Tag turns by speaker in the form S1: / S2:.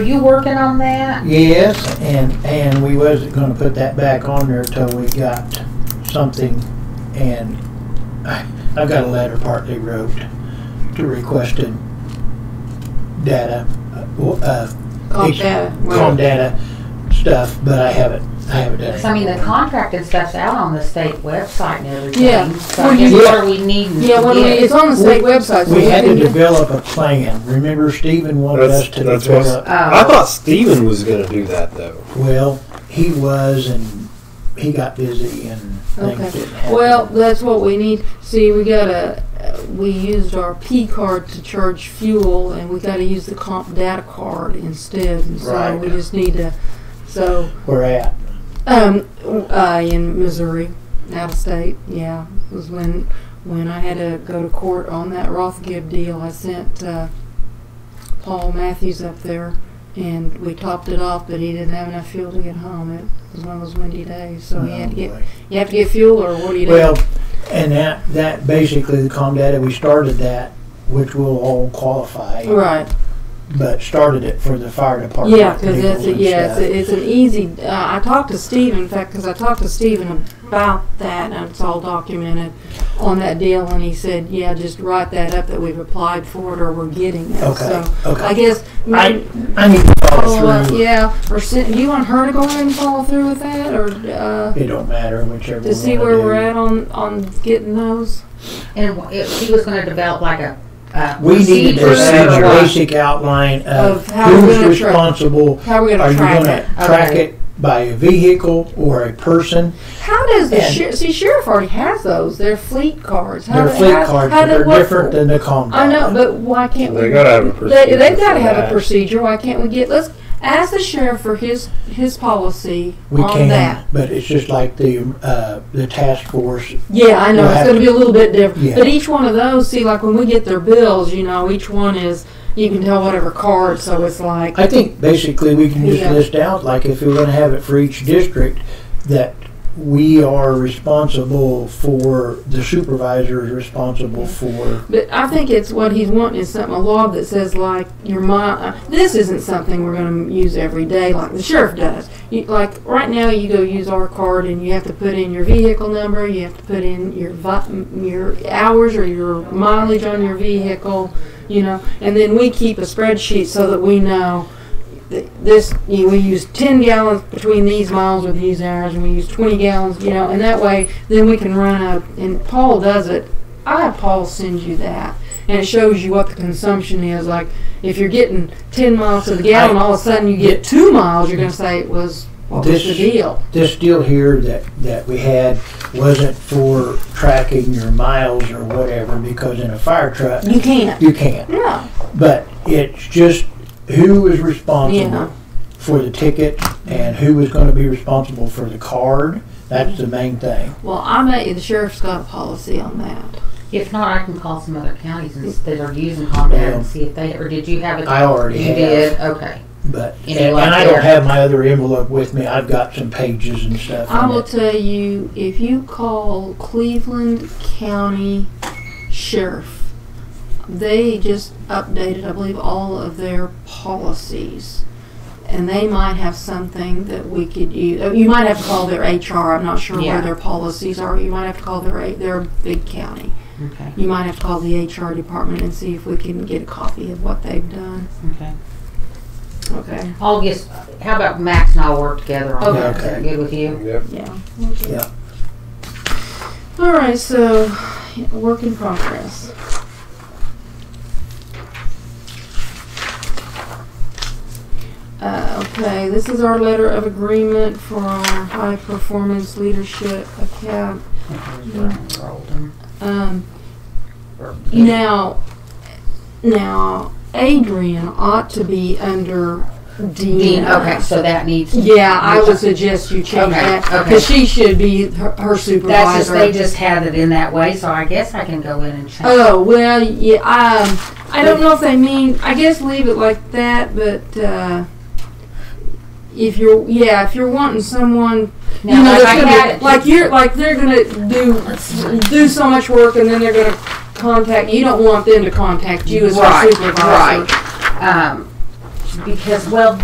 S1: you working on that?
S2: Yes, and, and we wasn't gonna put that back on there till we got something, and I, I've got a letter part they wrote to requesting data, uh, uh,
S3: Called
S2: ex-
S3: data.
S2: com data stuff, but I haven't, I haven't done
S1: Because
S2: it.
S1: I mean, the contract and stuff's out on the state website and everything.
S3: Yeah.
S1: So I
S3: Well,
S1: guess
S2: you-
S1: what are we needing to
S3: Yeah, what do we,
S1: get?
S3: it's on the state website. so
S2: We had to
S3: can-
S2: develop a plan, remember Stephen wanted us
S4: That's,
S2: to
S4: that's what
S2: develop,
S3: Oh.
S4: I thought Steven was gonna do that though.
S2: well, he was, and he got busy and
S3: Okay.
S2: things didn't happen.
S3: Well, that's what we need. See, we gotta, uh, we used our P card to charge fuel and we gotta use the comp data card instead. And so
S2: Right.
S3: we just need to, so,
S2: We're at,
S3: um, uh, in Missouri, out of state, yeah, was when, when I had to go to court on that Rothgib deal. I sent, uh, Paul Matthews up there and we topped it off, but he didn't have enough fuel to get home. It was one of those windy days, so he had to get, you have to get fuel or what do you do?
S2: Well, and that, that basically, the COM data, we started that, which will all qualify,
S3: Right.
S2: but started it for the fire department.
S3: Yeah, because it's
S2: people
S3: a,
S2: and
S3: yeah, it's,
S2: stuff.
S3: a, it's an easy. Uh, I talked to Steve, in fact, because I talked to Steven about that, and it's all documented on that deal, and he said, yeah, just write that up that we've applied for it or we're getting it.
S2: Okay,
S3: So I
S2: okay.
S3: guess
S2: I,
S3: maybe
S2: I need to
S3: follow
S2: follow
S3: up,
S2: through.
S3: yeah. Or send, do you want her to go ahead and follow through with that, or uh,
S2: It don't matter, whichever one.
S3: to see where we're at on on getting those?
S1: And it- he was gonna develop like a, a
S2: We need to
S1: procedure
S2: have
S1: or
S2: a
S1: what?
S2: basic outline of
S3: Of how we're
S2: who's
S3: gonna track-
S2: responsible.
S3: How are we
S2: Are
S3: gonna
S2: you
S3: track
S2: gonna
S3: it?
S2: track
S1: Okay.
S2: it by a vehicle or a person?
S3: How does the
S2: And-
S3: sheriff? See, sheriff already has those. They're fleet cards. How
S2: Their
S3: do-
S2: fleet
S3: how-
S2: cards,
S3: how
S2: but
S3: do-
S2: they're
S3: what-
S2: different than the COM
S3: I know,
S2: data.
S3: but why can't we?
S4: They gotta have a
S3: They,
S4: procedure.
S3: they've got to
S4: for
S3: have a
S4: that.
S3: procedure. Why can't we get? Let's ask the sheriff for his his policy
S2: We
S3: on
S2: can,
S3: that.
S2: but it's just like the, uh, the task force
S3: Yeah, I know
S2: We'll
S3: it's
S2: have
S3: going to be a little bit different.
S2: Yeah.
S3: But each one of those, see, like when we get their bills, you know, each one is you can tell whatever card. So it's like
S2: I think basically we can just
S3: Yeah.
S2: list out, like if we're gonna have it for each district, that we are responsible for, the supervisor is responsible for,
S3: But I think it's what he's wanting is something a law that says like your mom. This isn't something we're going to use every day like the sheriff does. You, like right now, you go use our card and you have to put in your vehicle number, you have to put in your vi- your hours or your mileage on your vehicle, you know, and then we keep a spreadsheet so that we know. that This you know, we use ten gallons between these miles or these hours, and we use twenty gallons, you know, and that way then we can run up. And Paul does it I have Paul send you that, and it shows you what the consumption is. Like if you're getting ten miles to the gallon, all of a sudden you get two miles. You're gonna say it was what was the
S2: This-
S3: deal?
S2: this deal here that, that we had wasn't for tracking your miles or whatever, because in a fire truck,
S3: You can't.
S2: you can't.
S3: No.
S2: But it's just who is
S3: Yeah.
S2: responsible for the ticket and who is gonna be responsible for the card, that's the main thing.
S3: Well, I may. The sheriff's got a policy on that.
S1: If not, I can call some other counties and s- that are using Combat
S2: Yeah.
S1: and see if they, or did you have it?
S2: I already
S1: You
S2: have.
S1: did, okay.
S2: But
S1: You
S2: and,
S1: know, like
S2: and I don't
S1: there.
S2: have my other envelope with me. I've got some pages and stuff.
S3: I
S2: in
S3: will
S2: it.
S3: tell you if you call Cleveland County Sheriff, they just updated, I believe, all of their policies. And they might have something that we could use. You might have to call their HR. I'm not sure
S1: Yeah.
S3: where their policies are. You might have to call their their big county.
S1: Okay,
S3: You might have to call the HR department and see if we can get a copy of what they've done.
S1: okay.
S3: Okay.
S1: I'll just, how about Max and I'll work together on that? Is that
S2: Okay.
S1: good with you?
S4: Yep.
S3: Yeah.
S2: Yeah.
S3: All right. So, yeah, work in progress. Uh, okay, this is our letter of agreement for our high performance leadership account. Um, now, now Adrian ought to be under
S1: Dean,
S3: Dean.
S1: okay, so that needs.
S3: Yeah, I would suggest you change
S1: Okay,
S3: that
S1: okay.
S3: because she should be her, her supervisor.
S1: That's just, they just had it in that way, so I guess I can go in and change.
S3: Oh well, yeah. Um, I don't know if they mean. I guess leave it like that. But uh, if you're, yeah, if you're wanting someone, you
S1: Now,
S3: know,
S1: like
S3: that's
S1: I
S3: gonna
S1: had
S3: be-
S1: it-
S3: like you're, like they're gonna do do so much work, and then they're gonna contact. You don't want them to contact you as
S1: Right,
S3: your supervisor.
S1: right. Um, because, well,